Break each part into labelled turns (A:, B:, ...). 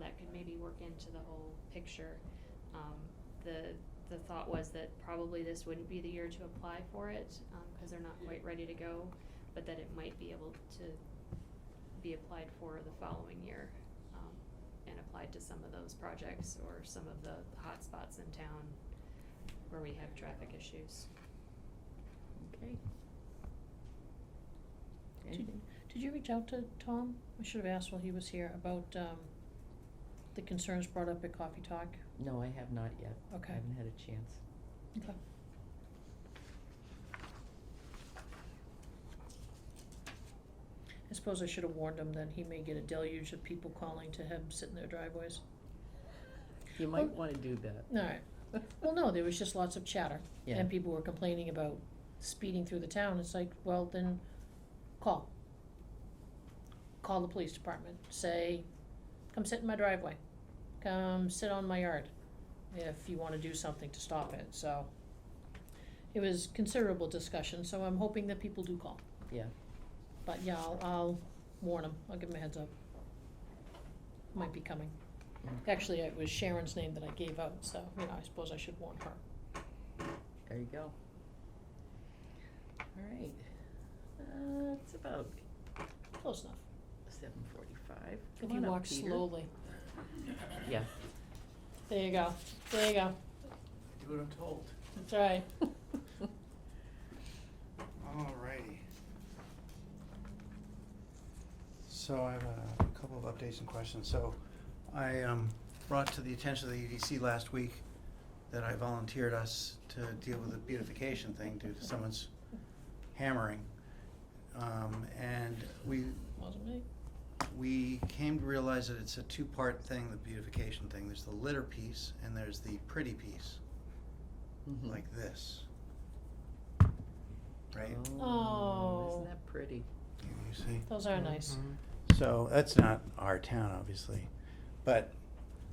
A: that could maybe work into the whole picture. Um, the, the thought was that probably this wouldn't be the year to apply for it, um, cause they're not quite ready to go, but that it might be able to be applied for the following year, um, and applied to some of those projects or some of the hot spots in town where we have traffic issues.
B: Okay. Anything? Did you reach out to Tom? I should have asked while he was here about, um, the concerns brought up at Coffee Talk.
C: No, I have not yet.
B: Okay.
C: I haven't had a chance.
B: Okay. I suppose I should have warned him that he may get a deluge of people calling to him, sit in their driveways.
C: You might
B: Well-
C: wanna do that.
B: Alright, well, no, there was just lots of chatter,
C: Yeah.
B: and people were complaining about speeding through the town, it's like, well, then, call. Call the police department, say, come sit in my driveway, come sit on my yard, if you wanna do something to stop it, so. It was considerable discussion, so I'm hoping that people do call,
C: Yeah,
B: but yeah, I'll, I'll warn them, I'll give them a heads up. Might be coming.
C: Mm.
B: Actually, it was Sharon's name that I gave out, so, you know, I suppose I should warn her.
C: there you go. All right, uh, it's about
B: Close enough.
C: seven forty-five.
B: If you walk slowly.
C: Yeah,
B: There you go, there you go.
D: Do what I'm told.
B: That's all right.
C: Mm-hmm.
D: Alrighty. So I have a couple of updates and questions. So I um, brought to the attention of the EDC last week that I volunteered us to deal with the beautification thing due to someone's hammering. Um, And we,
B: Wasn't me.
D: we came to realize that it's a two-part thing, the beautification thing. There's the litter piece and there's the pretty piece,
C: mhm.
D: like this. Right?
B: Oh.
C: Isn't that pretty?
D: You see?
B: Those are nice.
D: So that's not our town, obviously, but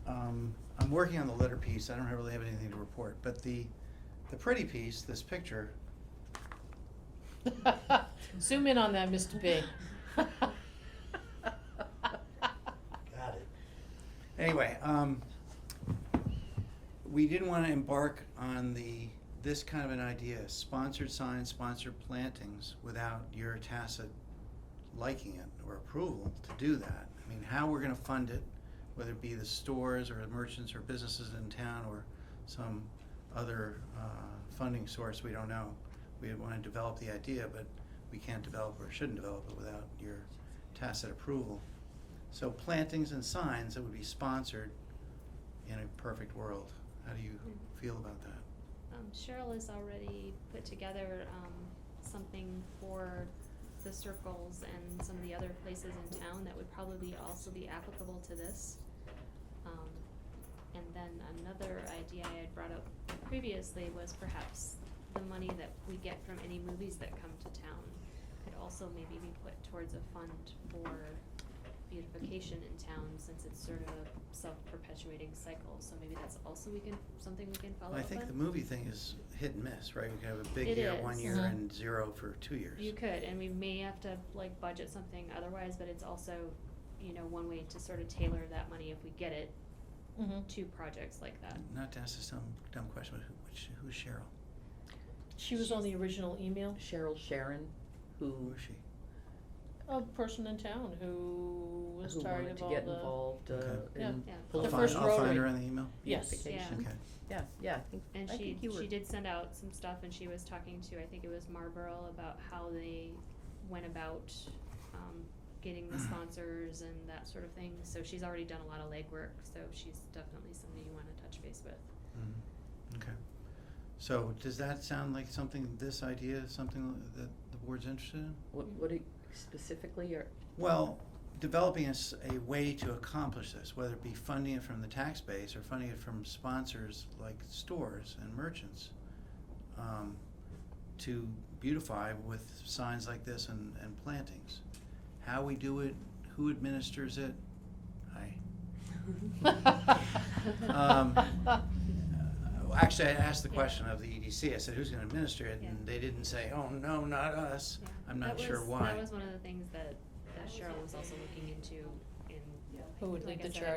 D: um, I'm working on the letter piece. I don't really have anything to report, but the the pretty piece, this picture,
C: Mm-hmm.
B: Zoom in on that, Mr. B.
D: Got it. Anyway, um, we didn't wanna embark on the, this kind of an idea, sponsored signs, sponsored plantings, without your tacit liking it or approval to do that. I mean, how we're gonna fund it, whether it be the stores or merchants or businesses in town or some other, uh, funding source, we don't know. We wanna develop the idea, but we can't develop or shouldn't develop it without your tacit approval. So plantings and signs that would be sponsored in a perfect world. How do you
A: Hmm.
D: feel about that?
A: Um, Cheryl has already put together, um, something for the circles and some of the other places in town that would probably also be applicable to this. Um, and then another idea I had brought up previously was perhaps the money that we get from any movies that come to town could also maybe be put towards a fund for beautification in town, since it's sort of a self-perpetuating cycle, so maybe that's also we can, something we can follow up
D: I
A: on.
D: think the movie thing is hit and miss, right? We could have a big
A: It
D: year one
A: is. Uh-huh.
D: year
B: Mhm.
D: and zero for two years.
A: You could, and we may have to like budget something otherwise, but it's also, you know, one way to sort of tailor that money if we get it
B: Mhm.
C: Mm-hmm.
A: to projects like that.
D: Not to ask this dumb, dumb question, but who- which, who's Cheryl?
B: She was on the original email,
C: Cheryl Sharon,
D: Who
C: who,
D: is she?
B: a person in town who was
C: who
B: tired
C: wanted
B: of
C: to
B: all
C: get
B: the.
C: involved, uh,
D: Okay.
B: Yeah.
C: in
A: Yeah.
B: The
D: I'll
C: political
D: find,
B: first
D: I'll find
B: rotary.
D: her in the email.
B: Yes.
C: beautification.
D: Okay,
C: Yeah, yeah, I think,
A: And
C: I
A: she,
C: think you were.
A: she did send out some stuff and she was talking to, I think it was Marlboro about how they went about, um, getting the sponsors and that sort of thing. So she's already done a lot of legwork, so she's definitely somebody you wanna touch base with.
D: Mhm. okay. So does that sound like something, this idea, something that the board's interested in?
C: What, what it- specifically, or,
D: Well, developing a, s- a way to accomplish this, whether it be funding it from the tax base or funding it from sponsors like stores and merchants, um, to beautify with signs like this and, and plantings. How we do it, who administers it, I,
B: Um,
D: uh, actually, I asked the
A: Yeah.
D: question of the EDC, I said, who's gonna administer it? And
A: Yeah.
D: they didn't say, oh, no, not us.
A: Yeah.
D: I'm not
A: That
D: sure
A: was-
D: why.
A: That was one of the things that, that Cheryl was also looking into in,
B: Who would
A: like
B: lead
A: I
B: the
A: said,
B: charge?